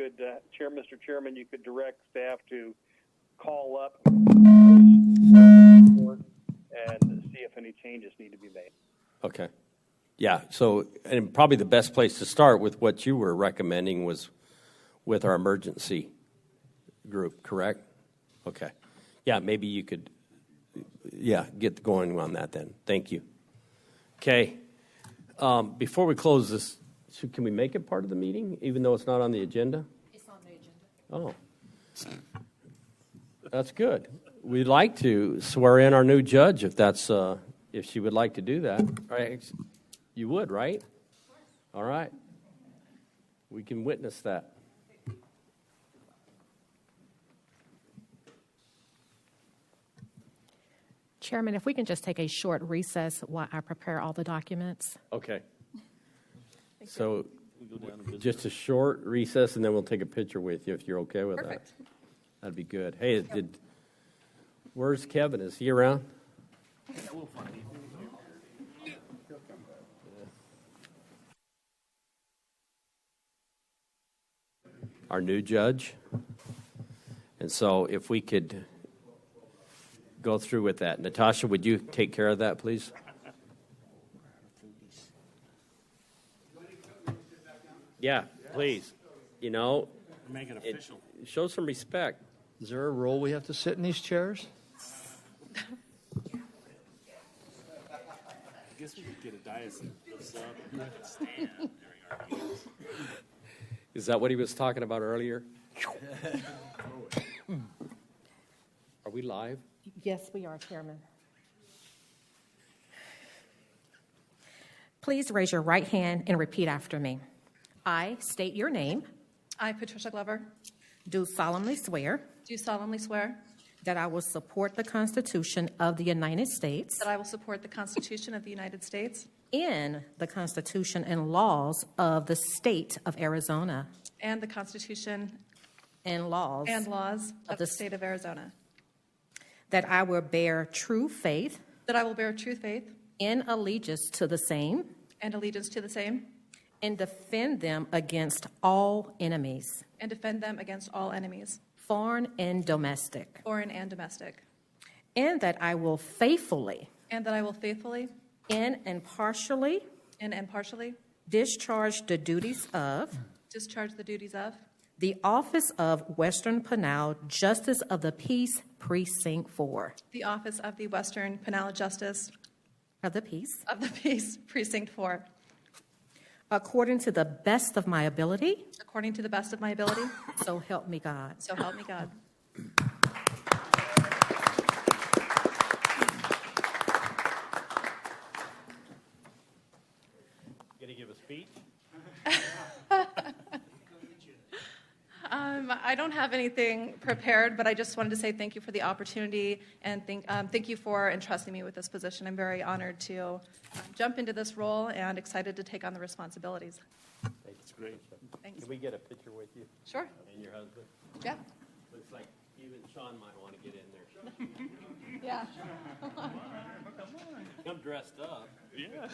uh, Chair, Mr. Chairman, you could direct staff to call up and see if any changes need to be made. Okay. Yeah, so, and probably the best place to start with what you were recommending was with our emergency group, correct? Okay. Yeah, maybe you could, yeah, get going on that then. Thank you. Okay. Um, Before we close this, should- can we make it part of the meeting, even though it's not on the agenda? It's on the agenda. Oh. That's good. We'd like to swear in our new judge if that's, uh, if she would like to do that. All right, ex- You would, right? All right. We can witness that. Chairman, if we can just take a short recess while I prepare all the documents. Okay. So just a short recess and then we'll take a picture with you if you're okay with that. Perfect. That'd be good. Hey, did, where's Kevin? Is he around? Our new judge. And so if we could go through with that. Natasha, would you take care of that, please? Yeah, please. You know, Make it it- official. show some respect. Is there a rule we have to sit in these chairs? I guess we could get a dais that lifts up and I could stand during our meetings. Is that what he was talking about earlier? Are we live? Yes, we are, Chairman. Please raise your right hand and repeat after me. I state your name, I, Patricia Glover, do solemnly swear do solemnly swear that I will support the Constitution of the United States that I will support the Constitution of the United States and the Constitution and laws of the state of Arizona and the Constitution and laws and laws Of of the the s- state of Arizona, that I will bear true faith that I will bear true faith and allegiance to the same and allegiance to the same and defend them against all enemies, and defend them against all enemies, foreign and domestic, foreign and domestic, and that I will faithfully and that I will faithfully and impartially and impartially discharge the duties of discharge the duties of the office of Western Pinal Justice of the Peace Precinct 4 the office of the Western Penal Justice of the Peace of the Peace Precinct 4, according to the best of my ability. according to the best of my ability, So help me God. so help me God. Gonna give a speech? Um, I don't have anything prepared, but I just wanted to say thank you for the opportunity and thank, um, thank you for entrusting me with this position. I'm very honored to um, jump into this role and excited to take on the responsibilities. It's great. Thanks. Can we get a picture with you Sure. and your husband? Yeah. Looks like even Sean might wanna get in there. Yeah. I'm dressed up. Yeah.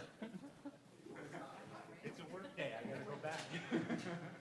It's a work day, I gotta go back.